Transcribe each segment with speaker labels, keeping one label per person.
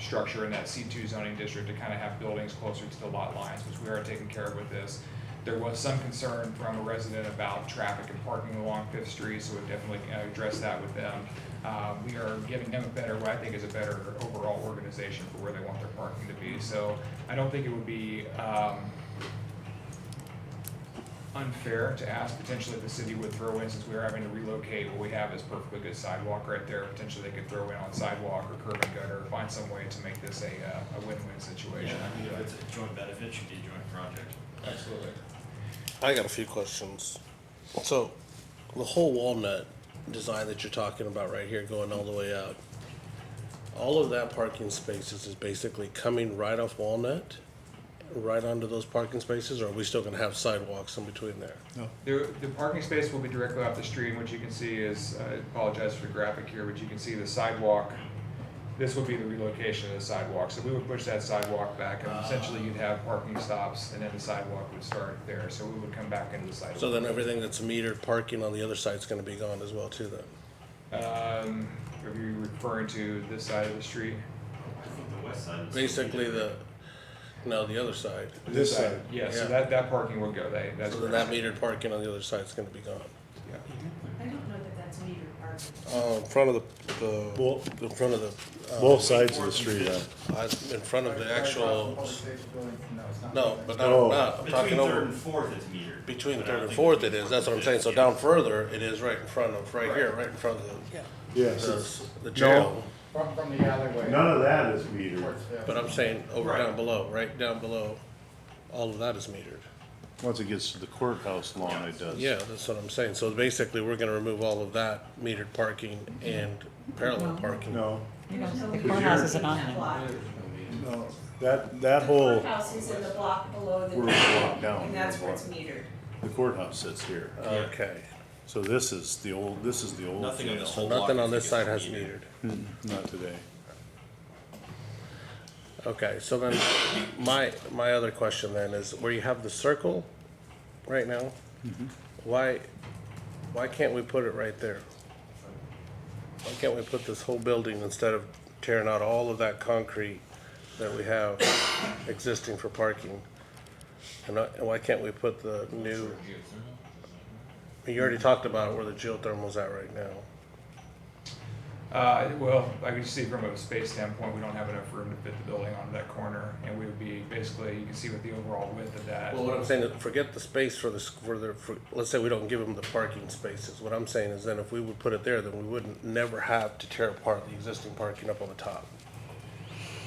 Speaker 1: structure in that C two zoning district to kind of have buildings closer to the lot lines, which we are taking care of with this. There was some concern from a resident about traffic and parking along Fifth Street, so we definitely uh, addressed that with them. Uh, we are giving them a better, what I think is a better overall organization for where they want their parking to be. So I don't think it would be, um, unfair to ask potentially if the city would throw in, since we are having to relocate, what we have is perfectly good sidewalk right there, potentially they could throw in on sidewalk or curb and gutter, find some way to make this a, uh, a win-win situation.
Speaker 2: I mean, if it's a joint benefit, it should be a joint project.
Speaker 1: Absolutely.
Speaker 3: I got a few questions. So, the whole walnut design that you're talking about right here, going all the way out, all of that parking spaces is basically coming right off Walnut, right onto those parking spaces, or are we still gonna have sidewalks in between there?
Speaker 1: The, the parking space will be directly off the street, and what you can see is, I apologize for the graphic here, but you can see the sidewalk. This would be the relocation of the sidewalk, so we would push that sidewalk back, and essentially you'd have parking stops, and then the sidewalk would start there, so we would come back into the sidewalk.
Speaker 3: So then everything that's metered parking on the other side's gonna be gone as well too then?
Speaker 1: Um, are you referring to this side of the street?
Speaker 2: I think the west side is.
Speaker 3: Basically the, no, the other side.
Speaker 4: This side.
Speaker 1: Yeah, so
Speaker 3: Yeah.
Speaker 1: that, that parking would go, they, that's.
Speaker 3: So then that metered parking on the other side's gonna be gone.
Speaker 1: Yeah.
Speaker 5: I don't know that that's metered parking.
Speaker 3: Uh, in front of the,
Speaker 4: Well-
Speaker 3: the, in front of the. uh,
Speaker 4: Both sides of the street, uh,
Speaker 3: I- In front of the actual, no, but not,
Speaker 4: Oh.
Speaker 3: not, I'm
Speaker 2: Between
Speaker 3: talking
Speaker 2: third
Speaker 3: over,
Speaker 2: and fourth is metered.
Speaker 3: between
Speaker 2: but I don't
Speaker 3: third and
Speaker 2: think
Speaker 3: fourth
Speaker 2: it's
Speaker 3: it is, that's what I'm saying, so
Speaker 2: metered.
Speaker 3: down further, it is right in front of, right here, right in front of the,
Speaker 4: yes,
Speaker 3: the,
Speaker 4: it's-
Speaker 3: s- the jail.
Speaker 6: From, from the alleyway.
Speaker 4: none of that is metered.
Speaker 6: Towards the-
Speaker 3: But I'm saying over
Speaker 2: Right.
Speaker 3: down below, right down below, all of that is metered.
Speaker 4: Once it gets to the courthouse lawn, it does.
Speaker 3: Yeah, that's what I'm saying, so basically, we're gonna remove all of that metered parking and parallel parking.
Speaker 4: No,
Speaker 7: The courthouse isn't on there.
Speaker 5: Block.
Speaker 4: no, that, that whole,
Speaker 5: Courthouse is in the block below the.
Speaker 4: We're blocked down.
Speaker 5: And that's where it's metered.
Speaker 4: the courthouse sits here.
Speaker 3: Okay,
Speaker 4: So this is the old, this is the old
Speaker 2: Nothing on this
Speaker 4: jail.
Speaker 2: whole block.
Speaker 3: nothing
Speaker 2: I
Speaker 3: on
Speaker 2: think
Speaker 3: this
Speaker 2: is
Speaker 3: side has metered.
Speaker 4: Not today.
Speaker 3: Okay, so then, my, my other question then is, where you have the circle right now, why, why can't we put it right there? Why can't we put this whole building instead of tearing out all of that concrete that we have existing for parking? And I- and why can't we put the new? You already talked about where the geothermal's at right now.
Speaker 1: Uh, well, I can see from a space standpoint, we don't have enough room to fit the building onto that corner, and we would be, basically, you can see with the overall width of that.
Speaker 3: Well, what I'm saying is, forget the space for the, s- for the, for, let's say we don't give them the parking spaces. What I'm saying is then if we would put it there, then we wouldn't never have to tear apart the existing parking up on the top.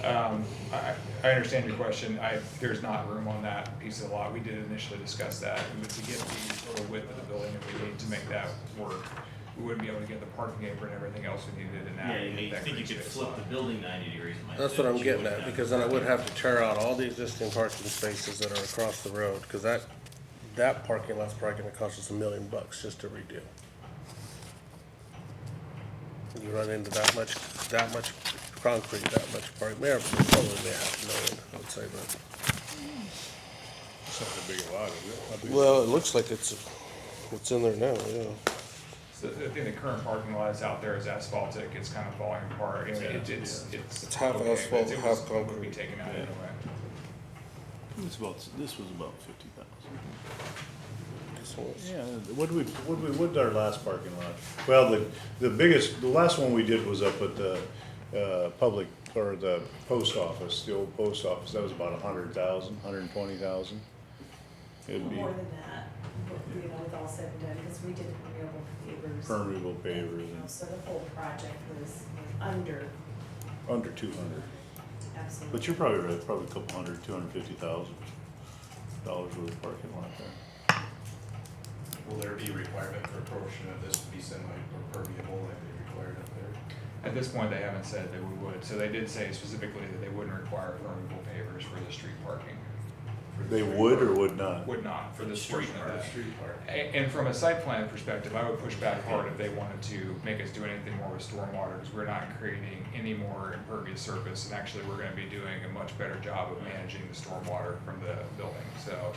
Speaker 1: Um, I, I understand your question. I, there's not room on that piece of the lot. We did initially discuss that. And to get the total width of the building, if we need to make that work, we wouldn't be able to get the parking apron and everything else we needed in that.
Speaker 2: Yeah, you
Speaker 1: that
Speaker 2: you think
Speaker 1: green
Speaker 2: you could
Speaker 1: space
Speaker 2: flip
Speaker 1: lot.
Speaker 2: the building ninety degrees. Mike,
Speaker 3: That's
Speaker 2: that
Speaker 3: what I'm
Speaker 2: you
Speaker 3: getting
Speaker 2: wouldn't
Speaker 3: at,
Speaker 2: have.
Speaker 3: because then I would have to tear out all the existing parking spaces that are across the road, cause that, that parking lot's probably gonna cost us a million bucks just to redo. You run into that much, that much concrete, that much parking, there, probably they have million, I would say, but.
Speaker 4: It's not that big a lot, is it? How big-
Speaker 3: Well, it looks like it's, it's in there now, yeah.
Speaker 1: So I think the current parking lot is out there is asphaltic, it's kind of falling apart, I mean, it- it's, it's.
Speaker 3: It's half
Speaker 1: okay, but
Speaker 3: asphalt,
Speaker 1: it was-
Speaker 3: half
Speaker 1: Would be
Speaker 3: concrete.
Speaker 1: taken out anyway.
Speaker 4: It's about, this was about fifty thousand.
Speaker 3: So it's-
Speaker 4: Yeah, what we, what we, what our last parking lot? Well, the, the biggest, the last one we did was up at the, uh, public, or the post office, the old post office, that was about a hundred thousand, hundred and twenty thousand. It'd be
Speaker 5: More than that, but, you know, with all said and done, because we did renewable pavers.
Speaker 4: permeable
Speaker 5: and, you
Speaker 4: pavers,
Speaker 5: know,
Speaker 4: and
Speaker 5: So the whole project was under,
Speaker 4: under two hundred,
Speaker 5: absolutely.
Speaker 4: but you're probably right, probably a couple hundred, two hundred and fifty thousand dollars worth of parking lot there.
Speaker 8: Will there be a requirement for a portion of this to be semi or permeable like they required up there?
Speaker 1: At this point, they haven't said that we would, so they did say specifically that they wouldn't require permeable pavers for the street parking. for the
Speaker 4: They
Speaker 1: street
Speaker 4: would or
Speaker 1: park-
Speaker 4: would not?
Speaker 1: Would not, for this portion of that.
Speaker 8: Street part.
Speaker 1: A- And from a site plan perspective, I would push back hard if they wanted to make us do anything more with stormwater, because we're not creating any more impervious surface, and actually, we're gonna be doing a much better job of managing the stormwater from the building, so,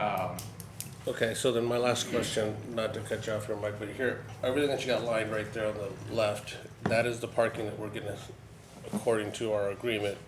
Speaker 1: um,
Speaker 3: Okay, so then my last question, not to cut you off here, Mike, but here, everything that you got lined right there on the left, that is the parking that we're gonna according to our agreement,